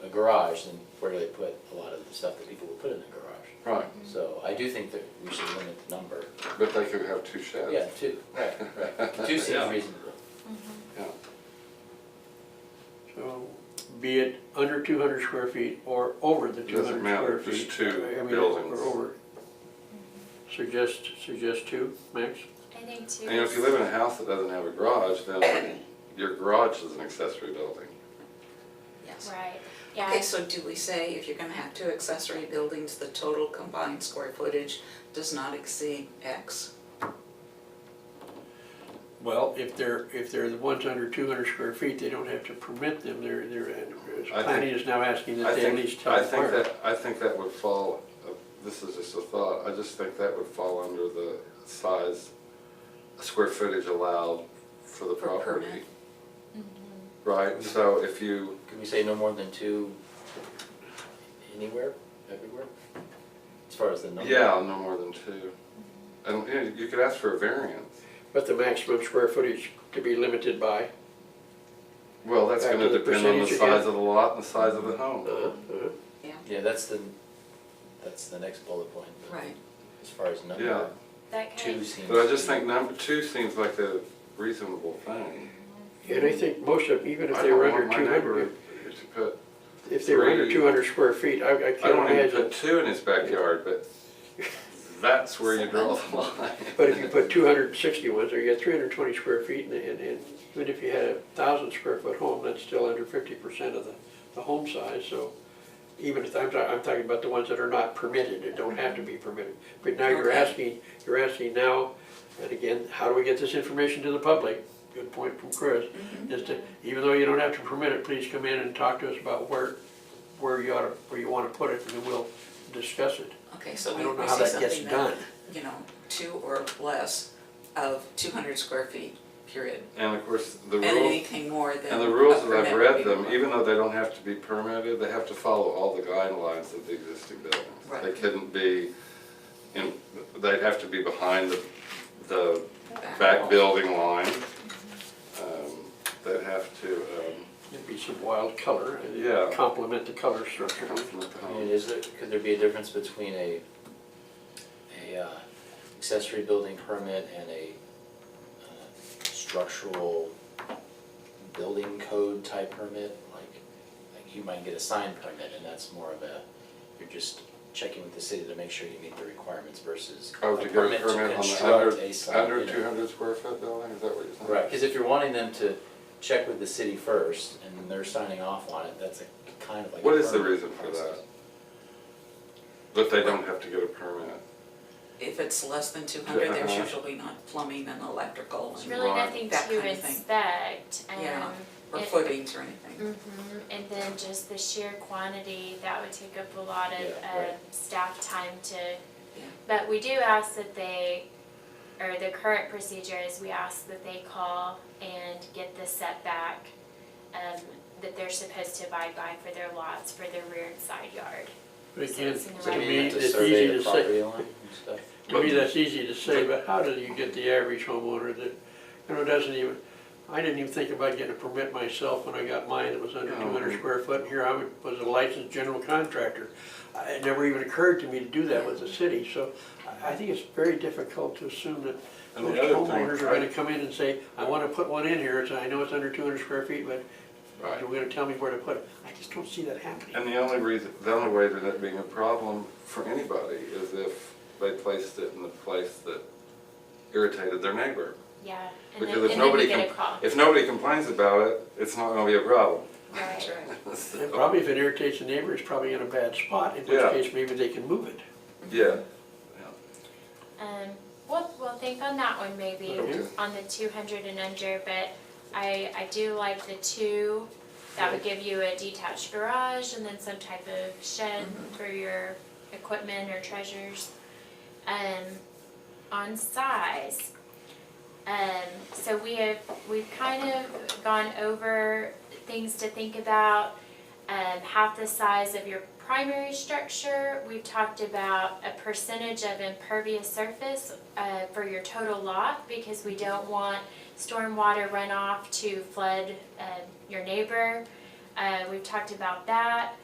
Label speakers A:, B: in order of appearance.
A: garage than where they put a lot of the stuff that people would put in the garage.
B: Right,
A: So I do think that we should limit the number.
B: but they could have two sheds.
A: Yeah, two, right, right. Two seems
C: Yeah.
A: reasonable.
D: Mm-hmm.
B: Yeah.
E: So be it under two hundred square feet or over the two
B: Doesn't
E: hundred
B: matter,
E: square
B: just
E: feet.
B: two
E: I mean,
B: buildings.
E: Or over. Suggest, suggest two, max?
D: I think too.
B: And if you live in a house that doesn't have a garage, then your garage is an accessory building.
F: Yes.
D: Right, yeah,
F: Okay, so do we say if you're gonna have two accessory buildings, the total combined square footage does not exceed X?
E: Well, if they're, if they're the ones under two hundred square feet, they don't have to permit them, they're, they're,
B: I
E: planning is now asking that
B: I
E: they at
B: think-
E: least tell the
B: I think
E: fire.
B: that, I think that would fall, uh, this is just a thought, I just think that would fall under the size, square footage allowed for the
F: For permit.
B: property.
D: Mm-hmm.
B: Right, so if you,
A: Could we say no more than two anywhere, everywhere? As far as the number?
B: yeah, no more than two. And you know, you could ask for a variance.
E: But the maximum square footage to be limited by,
B: Well, that's
E: Back
B: gonna
E: to the
B: depend on the
E: percentage
B: size
E: again.
B: of the lot and the size of the home.
E: uh-huh, uh-huh.
A: Yeah, that's the, that's the next bullet point.
F: Right.
A: As far as
B: Yeah.
A: number,
D: that
A: two
D: kind
A: seems.
B: But I
A: to
B: just
A: be-
B: think number two seems like a reasonable thing.
E: And I think most of, them, even if
B: I
E: they
B: don't
E: were
B: want
E: under
B: my
E: two
B: neighbor
E: hundred,
B: to put,
E: if they were under
B: three-
E: two hundred square feet, I, I
B: I
E: can't
B: don't want him to
E: imagine.
B: put two in his backyard, but that's where you draw the line.
E: But if you put two hundred and sixty ones there, you got three hundred and twenty square feet, and, and, and even if you had a thousand square foot home, that's still under fifty percent of the, the home size, so even if, I'm, ta- I'm talking about the ones that are not permitted, that don't have to be permitted. But now you're
F: Okay.
E: asking, you're asking now, and again, how do we get this information to the public? Good point from Chris,
F: Mm-hmm.
E: is to, even though you don't have to permit it, please come in and talk to us about where, where you ought to, where you wanna put it, and then we'll discuss it.
F: Okay, so
E: I
F: we
E: don't know
F: we
E: how
F: say
E: that gets
F: something that,
E: done.
F: you know, two or less of two hundred square feet, period.
B: And of course, the
F: And
B: rules,
F: anything more than.
B: and the
F: a
B: rules that I've
F: permit would
B: read
F: be
B: them,
F: more.
B: even though they don't have to be permitted, they have to follow all the guidelines of the existing buildings. They
F: Right.
B: couldn't be, in they'd have to be behind the, the
F: Back
B: back
F: wall.
B: building line. Um, They'd have to, um,
E: It'd be some wild color,
B: Yeah.
E: and complement the color structure.
B: complement the
A: I
B: home.
A: mean, is there, could there be a difference between a, a uh, accessory building permit and a uh, structural building code type permit? Like, like you might get a sign permit and that's more of a, you're just checking with the city to make sure you meet the requirements versus a
B: Oh, to get a
A: permit to
B: permit on the
A: construct
B: under,
A: a sign.
B: under
A: you know.
B: two hundred square foot building, is that what you're saying?
A: Right, because if you're wanting them to check with the city first and they're signing off on it, that's a kind of like. a
B: What is the
A: permit
B: reason for
A: process.
B: that? That they don't have to get a permit?
F: If it's less than two hundred, there's
B: Uh-huh.
F: usually not plumbing and electrical
D: There's
F: and-
D: really
B: Right.
D: nothing
F: That
D: to
F: kind of thing.
D: inspect,
F: Yeah.
D: um,
F: or
D: it-
F: footings or anything.
D: mhm, and then just the sheer quantity, that would take up a lot of,
A: Yeah, right.
D: uh, staff time to. But we do ask that they, or the current procedure is we ask that they call and get the setback, um, that they're supposed to abide by for their lots, for their rear and side yard.
E: But again,
D: So it's
E: to
D: in the
A: Do you
E: me,
A: have
E: that's
A: to
E: easy
A: survey
E: to
A: the
E: say,
A: property line and stuff?
E: to me, that's easy to say, but how do you get the average homeowner that, you know, doesn't even, I didn't even think about getting a permit myself when I got mine, it was under
B: No.
E: two hundred square foot, and here I would- was a licensed general contractor. I- It never even occurred to me to do that with the city, so I- I think it's very difficult to assume that
B: And the
E: most
B: other thing-
E: homeowners are gonna come in and say, I wanna put one in here, it's, I know it's under two hundred square feet, but
B: Right.
E: You're gonna tell me where to put it. I just don't see that happening.
B: And the only reason, the only way to that being a problem for anybody is if they placed it in the place that irritated their neighbor.
D: Yeah, and then,
B: Because if
D: and then we
B: nobody,
D: get a
B: com-
D: call,
B: if nobody complains about it, it's not gonna be a problem.
D: right?
B: So,
E: And probably if it irritates the neighbor, it's probably in a bad spot, in
B: Yeah.
E: which case maybe they can move it.
B: Yeah.
D: Um, we'll, we'll think on that one maybe,
B: Okay.
D: on the two hundred and under, but I, I do like the two. That would give you a detached garage and then some type of shed for your equipment or treasures. Um, on size, um, so we have, we've kind of gone over things to think about. Um, half the size of your primary structure, we've talked about a percentage of impervious surface, uh, for your total lot, because we don't want stormwater runoff to flood, um, your neighbor. Uh, we've talked about that.